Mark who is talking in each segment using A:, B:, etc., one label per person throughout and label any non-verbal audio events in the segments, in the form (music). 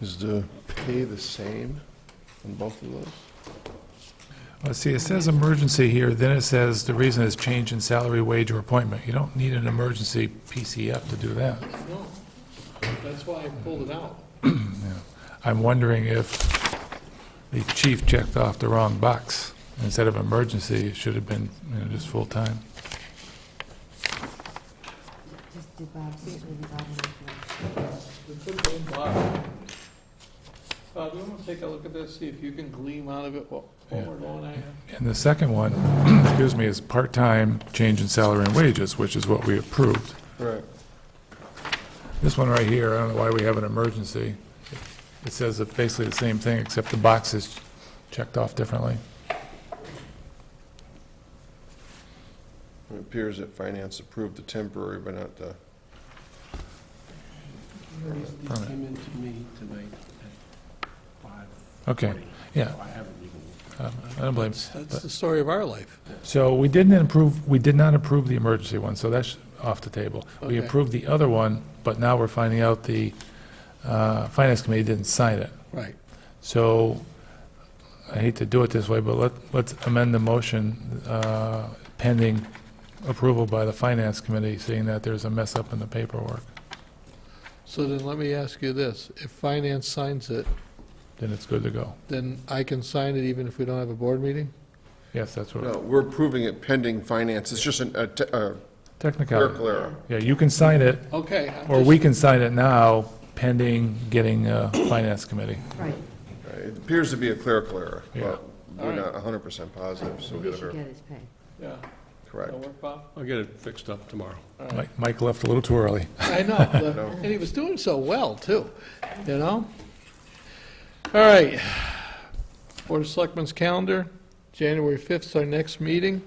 A: Is the pay the same on both of those?
B: Let's see, it says emergency here, then it says the reason is change in salary, wage, or appointment. You don't need an emergency PCF to do that.
C: No, that's why I pulled
B: (clears throat)
C: it out.
B: I'm wondering if the chief checked off the wrong box. Instead of emergency, it should have been, you know, just full-time.
D: Just did Bob see it with the bottom of
C: We put it in black. Bob, you want to take a look at this, see if you can gleam out of it what, what
B: Yeah.
C: we're going at? here?
B: And the second one, (clears throat) excuse me, is part-time change in salary and wages, which is what we approved.
A: Correct.
B: This one right here, I don't know why we have an emergency. It says it's basically the same thing, except the box is checked off differently.
A: It appears that finance approved the temporary, but not the,
E: These
B: Permit.
E: came in to me tonight at five.
B: Okay, yeah.
E: I haven't even,
B: Um, I don't blame.
C: That's the story of our life.
B: So we didn't approve, we did not approve the emergency one, so that's off the table. We
C: Okay.
B: approved the other one, but now we're finding out the uh, Finance Committee didn't sign it.
C: Right.
B: So I hate to do it this way, but let, let's amend the motion uh, pending approval by the Finance Committee, seeing that there's a mess up in the paperwork.
C: So then let me ask you this, if finance signs it,
B: Then it's good to go.
C: then I can sign it even if we don't have a board meeting?
B: Yes, that's what,
A: no, we're approving it pending finance. It's just an, a, te- a
B: technicality.
A: clerical error.
B: Yeah, you can sign it,
C: Okay. I'm
B: or
C: just-
B: we can sign it now pending getting uh, Finance Committee.
D: the- Right,
A: Right, It appears to be a clerical error,
B: Yeah.
A: but we're not hundred percent positive, so we
D: he
A: gotta
D: should
A: verify.
D: get his pay.
C: Yeah,
A: Correct.
C: that'll work, Bob?
E: I'll get it fixed up tomorrow.
B: Mike- Mike left a little too early.
C: I know, but-
A: No.
C: and he was doing so well, too, you know? All right, Board of Selectmen's calendar, January 5th is our next meeting.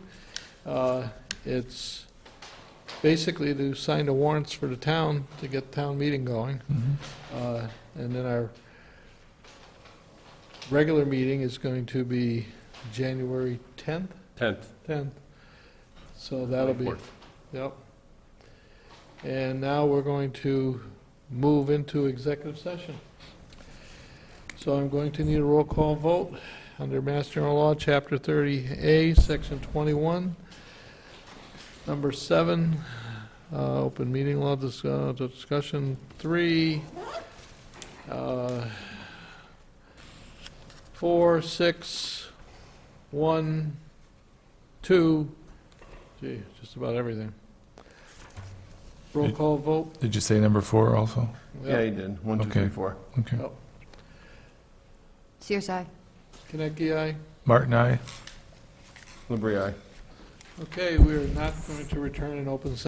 C: Uh, It's basically to sign the warrants for the town, to get the town meeting going. Uh, And then our regular meeting is going to be January 10th,
E: Tenth.
C: 10th. So that'll be. Yep. And now we're going to move into executive session. So I'm going to need a roll call vote under Mass General Law, Chapter 30A, Section 21, Number 7, uh, Open Meeting Law dis- uh, Discussion 3, uh, 4, 6, 1, 2, gee, just about everything. Roll call vote.
B: Did you say number four also?
A: Yeah, you did. One, two,
B: Okay.
A: three, four.
B: Okay.
D: CSI?
C: Kinecki, aye.
B: Martin, I.
A: Labrie, aye.
C: Okay, we are not going to return an open session.